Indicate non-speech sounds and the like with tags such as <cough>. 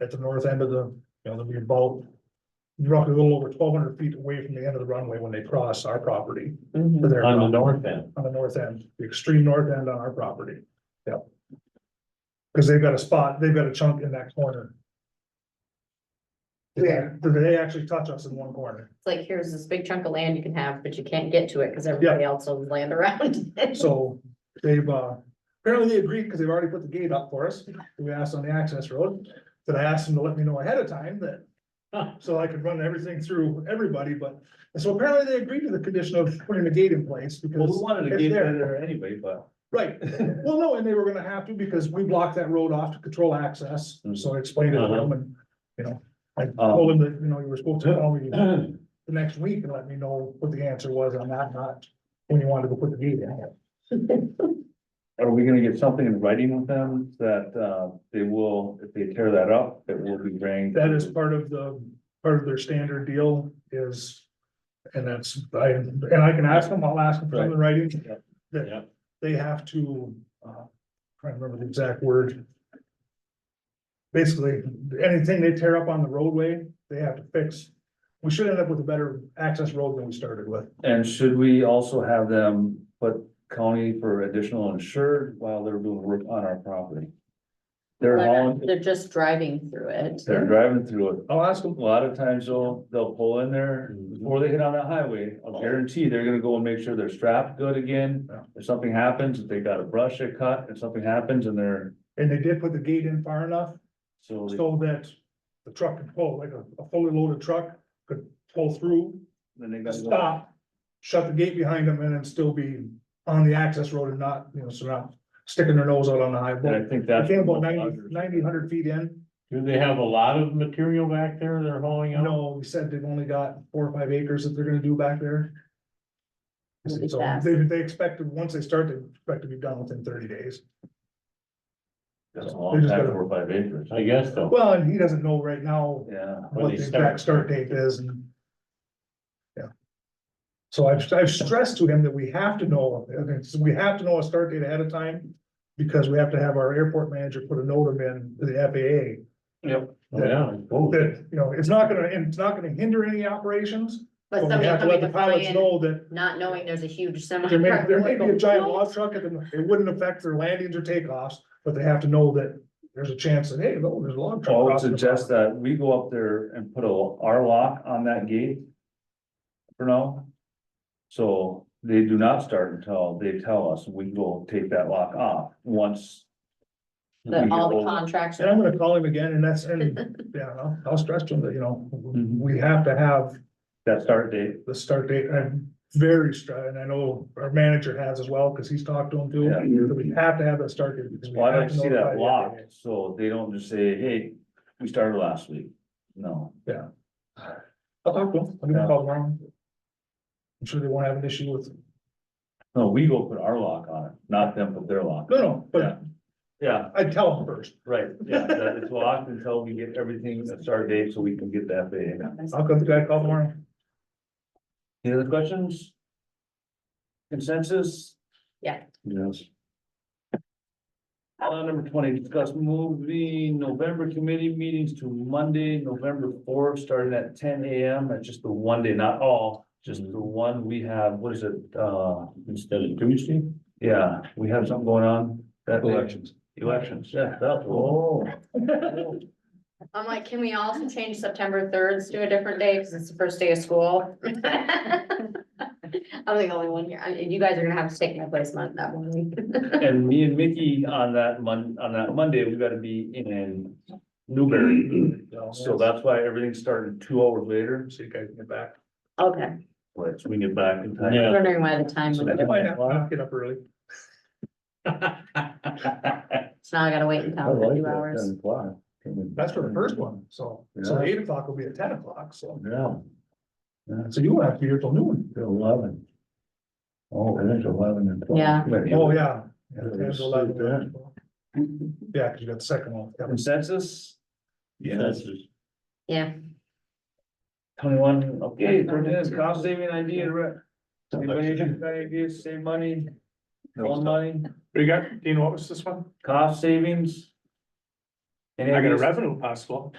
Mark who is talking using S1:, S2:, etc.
S1: at the north end of the, you know, they'll be about roughly a little over twelve hundred feet away from the end of the runway when they cross our property.
S2: Mhm.
S1: to their
S3: on the
S1: property,
S3: north end.
S1: On the north end, the extreme north end on our property. Yep. Cause they've got a spot, they've got a chunk in that corner.
S2: Where?
S1: They- They actually touch us in one corner.
S2: It's like, here's this big chunk of land you can have, but you can't get to it because everybody else owns land around. <laughs> it.
S1: So they've, uh, apparently they agreed because they've already put the gate up for us. We asked on the access road, that I asked them to let me know ahead of time that. So I could run everything through everybody, but, and so apparently they agreed to the condition of putting the gate in place
S3: Well, we
S1: because,
S3: wanted to
S1: It's
S3: get
S1: there.
S3: in there anyway, but. <clears throat>
S1: right. Well, no, and they were gonna have to because we blocked that road off to control access. So I explained it to them and, you know, I told them that, you know, you were supposed to
S3: <clears throat>
S1: call me the next week and let me know what the answer was on that, not when you wanted to put the gate in.
S3: Are we gonna get something in writing with them that, uh, they will, if they tear that up, it will be ranked?
S1: That is part of the, part of their standard deal is, and that's, I, and I can ask them, I'll ask them for something in writing.
S3: Yep.
S1: That
S3: Yep.
S1: they have to, uh, trying to remember the exact word. Basically, anything they tear up on the roadway, they have to fix. We should end up with a better access road than we started with.
S3: And should we also have them put county for additional insured while they're doing work on our property? They're hauling,
S2: They're just driving through it.
S3: they're driving through it.
S1: I'll ask
S3: A
S1: them,
S3: lot of times they'll, they'll pull in there before they hit on that highway. I'll guarantee they're gonna go and make sure they're strapped good again.
S1: Yeah.
S3: If something happens, if they got a brush they cut, if something happens and they're,
S1: and they did put the gate in far enough
S3: so. they-
S1: so that the truck could pull, like a a fully loaded truck could pull through
S3: Then they
S1: to
S3: got.
S1: stop, shut the gate behind them and then still be on the access road and not, you know, so not sticking their nose out on the
S3: And I
S1: highway.
S3: think
S1: I
S3: that's.
S1: came about 90 90, 100 feet in,
S4: Do they have a lot of material back there they're hauling
S1: you
S4: out?
S1: know, we said they've only got four or five acres that they're gonna do back there.
S2: It'll be
S1: So
S2: fast.
S1: they, they expect, to- once they start, they expect to be done within thirty days.
S3: That's a
S1: They
S3: long
S1: just
S3: time,
S1: gotta-
S3: four, or five acres.
S4: I guess so.
S1: Well, and he doesn't know right now
S3: Yeah.
S4: When
S1: what
S4: they
S1: the
S4: start.
S1: exact start date is and. Yeah. So I've, I've stressed to him that we have to know, okay, so we have to know a start date ahead of time. Because we have to have our airport manager put a note in to the
S3: Yep.
S4: Yeah, I
S1: FAA
S4: suppose.
S1: that, you know, it's not gonna, and it's not gonna hinder any operations.
S2: But
S1: we
S2: somebody
S1: have to let
S2: coming
S1: the
S2: to fly
S1: pilots
S2: in,
S1: know that
S2: not knowing there's a huge semi.
S1: there may,
S2: truck
S1: there may be a
S2: going-
S1: giant log truck and then it wouldn't affect their landings or takeoffs. But they have to know that there's a chance that, hey, look, there's a log truck.
S3: I would
S1: crossing the
S3: suggest that we go up there and put a, our lock on that gate. For now. So they do not start until they tell us, we will take that lock off once.
S2: That all the contracts.
S1: And I'm gonna call him again and that's, and, yeah, I'll, I'll stress to him that, you know,
S3: Mm-hmm.
S1: we have to have
S3: That start date,
S1: the start date. I'm very strong, and I know our manager has as well, cause he's talked to him too.
S3: Yeah.
S1: But We have to have that start date. because we
S3: well, I'd
S1: have
S3: like to
S1: know
S3: see
S1: by
S3: that
S1: the
S3: lock,
S1: end.
S3: so they don't just say, hey, we started last week, no.
S1: I'll talk to him. I'll give him a call tomorrow. I'm sure they won't have an issue with,
S3: No, we go put our lock on it, not them put their lock.
S1: no, no,
S3: Yeah.
S1: but
S3: Yeah,
S1: I tell him first.
S3: right, yeah, that is locked until we get everything, a start date, so we can get the FAA.
S1: I'll go to the guy call tomorrow.
S3: Any other questions? Consensus?
S2: Yeah.
S3: Yes. Uh, number twenty, discuss moving November committee meetings to Monday, November fourth, starting at ten AM. That's just the one day, not all, just the one we have, what is it, uh,
S4: Mm-hmm. Instead of Tuesday?
S3: yeah, we have something going on. that day.
S4: Elections.
S3: Elections, yeah, that's. Oh.
S2: I'm like, can we also change September third to a different day, cause it's the first day of school? <laughs> I'm the only one here, I- you guys are gonna have to take my place on that one week. <laughs>
S3: And me and Mickey on that Mon- on that Monday, we gotta be in
S4: <clears throat>
S3: Newberry. So that's why everything started two hours later,
S1: See you guys get back.
S2: Okay,
S3: but we get back in
S2: I
S3: time.
S4: Yeah.
S3: <laughs>
S2: was wondering why the time,
S3: So
S2: was
S1: I
S3: that-
S2: different.
S1: might have to get up early.
S2: so now I gotta wait until two hours.
S1: That's for the first one, so, so
S3: Yeah.
S1: eight o'clock will be at ten o'clock, so,
S3: Yeah.
S1: so you won't have to be here till noon.
S3: Eleven. Oh, it is eleven and
S2: twelve. Yeah.
S1: Oh, yeah.
S3: Yeah,
S1: Yeah,
S3: it's
S1: 11,
S3: like that.
S1: 12. Yeah, cause you got the second one. yeah.
S3: Consensus?
S4: Yes.
S2: Yeah,
S3: Twenty-one, okay, for this cost saving idea, right? Anybody got ideas, save money? Loan money?
S1: You got, do you know what was this one?
S3: cost savings.
S5: And
S1: I got a
S5: it's-
S1: revenue possible.